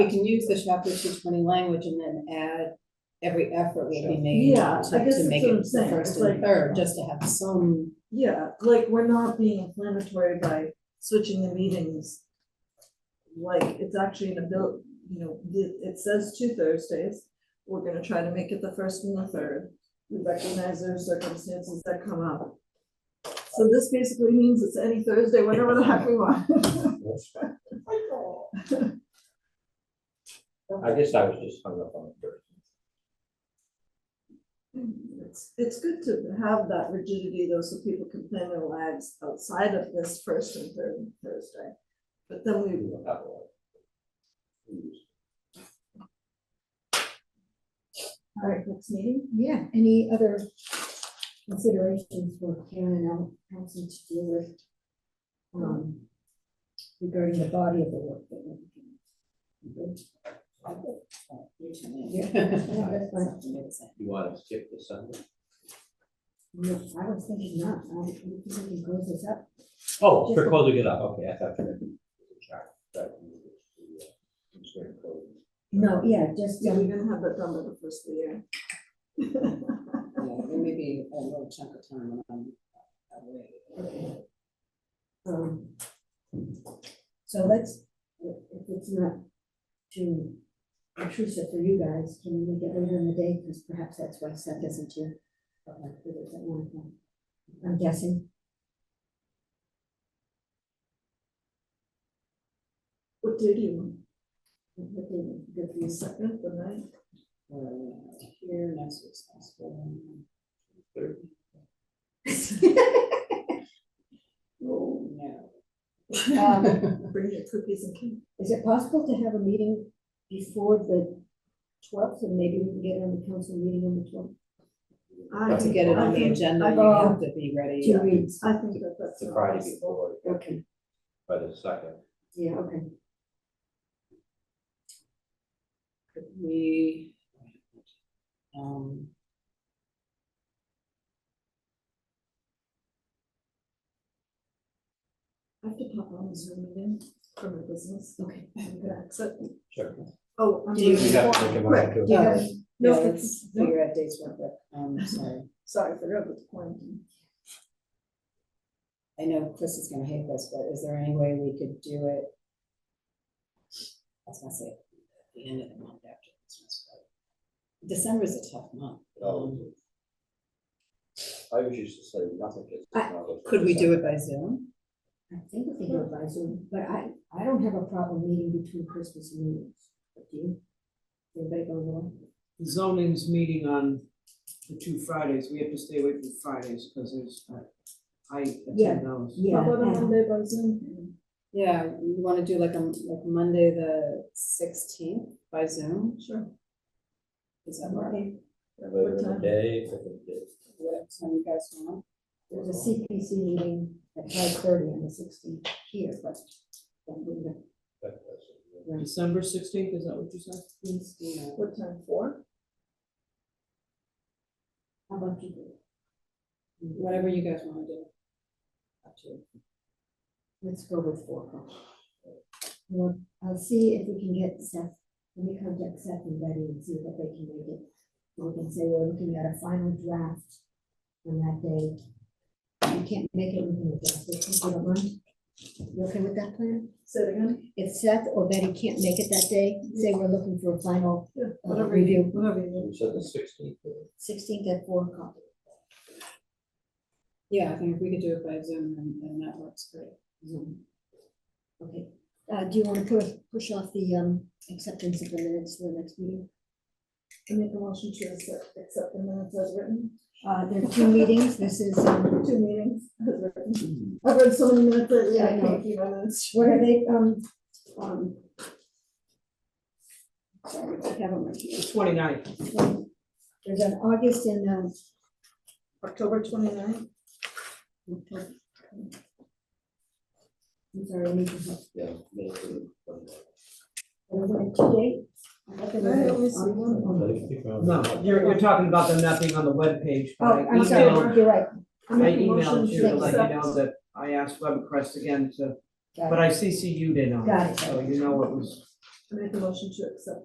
We can use the chapter two twenty language and then add, every effort will be made Yeah, I to, guess to that's make what it I'm the saying. first It's and like- third, just to have some. Yeah, like we're not being inflammatory by switching the meetings. Like it's actually an abil, you know, it, it says two Thursdays. We're gonna try to make it the first and the third. We recognize there are circumstances that come up. So this basically means it's any Thursday, whenever the heck we want. I guess I was just hung up on Thursday. It's, it's good to have that rigidity though, so people can plan their lives outside of this first and third Thursday. But then we, We will have a- all right, next meeting? Yeah, any other considerations for Karen and council to deal with? Um, regarding the body of the work that we're doing. Yeah, that's You want to skip the Sunday? No, I was thinking not, I was thinking close this up. Oh, Just for the- closing it up, okay, I thought you meant. Sorry, thought you meant the, uh, considering closing. No, yeah, just, Yeah, um, we're gonna have that done by the first of the year. There may be a little chunk of time when I'm away. um, so let's, if if it's not too intrusive for you guys, can we make it later in the day? Because perhaps that's why Seth isn't here. but like, it is at one o'clock. I'm guessing. What day do you want? What do you- Give you a second, the night? We're Here, next week's possible. Third. Oh, No. Um, Bring your cookies and cake. Is it possible to have a meeting before the twelfth, and maybe we can get on the council meeting on the twelfth? I To think- get it on I the think- agenda, I you think- have to be ready. Two weeks, I think that that's. The not Friday possible. before, okay, by the second. yeah, okay. Could we? Um. I have to pop on the Zoom again for my business. Okay. I'm gonna exit. Sure. Oh, I'm. Do you- We have to make a Right. motion Yeah. to. uh, No, yeah, it's- let's figure out dates real quick, um, sorry. Sorry, I forgot about the quarantine. I know Chris is gonna hate this, but is there any way we could do it? I was gonna say, at the end of the month after Christmas, but December is a tough month. Um, Oh. I was used to say nothing. gets I- done. Could we do it by Zoom? I think we can advise Zoom, but I, I don't have a problem meeting between Christmas and New Year's, but do you? Anybody go along? the zoning's meeting on the two Fridays, we have to stay away from Fridays, because there's, uh, I Yeah. attend those. Yeah, How about on uh, Monday by Zoom? Yeah, you wanna do like, um, like Monday, the sixteenth by Zoom, Sure. is that work? okay, Later in the time? day, if it is. Whatever time you guys want, there's a CPC meeting at five thirty on the sixteenth here, but. that wouldn't have That doesn't- December sixteenth, is that what you said? been- you know. What time, four? How about you? whatever you guys wanna do. Up to you. Let's go with four. o'clock. Well, I'll see if we can get Seth, let me contact Seth and Betty and see if they can make it. We can say we're looking at a final draft on that day. You can't make it, we can adjust it, if you don't mind. You okay with that plan? Say it again? If Seth or Betty can't make it that day, say we're looking for a final Yeah, uh, whatever you, review, whatever you need. You said the sixteenth. sixteenth at four o'clock. Yeah, I think if we could do it by Zoom, then, then that works great. Zoom. Okay, uh, do you want to push, push off the, um, acceptance of the minutes for the next meeting? I make a motion to accept, accept the minutes as written, Uh, there are two meetings, this is, um, two meetings as written. I've read so many minutes lately, I Yeah, I can't know. keep my minutes. what are they, um, um. Sorry, I have them right here. Um, The twenty-ninth, There's an August and, um, October twenty-ninth, I'm sorry, I need to help. Yeah. middle of the Monday. There was like two dates. I thought there was I a- only see August one. and August. no, you're, you're talking about them not being on the webpage, but I Oh, I'm sorry, emailed, you're right, I I make a emailed motion you to to let you accept. know that I asked WebCrest again to, got but it, I CC'd in on Got it, it. so you know it was I make a motion to accept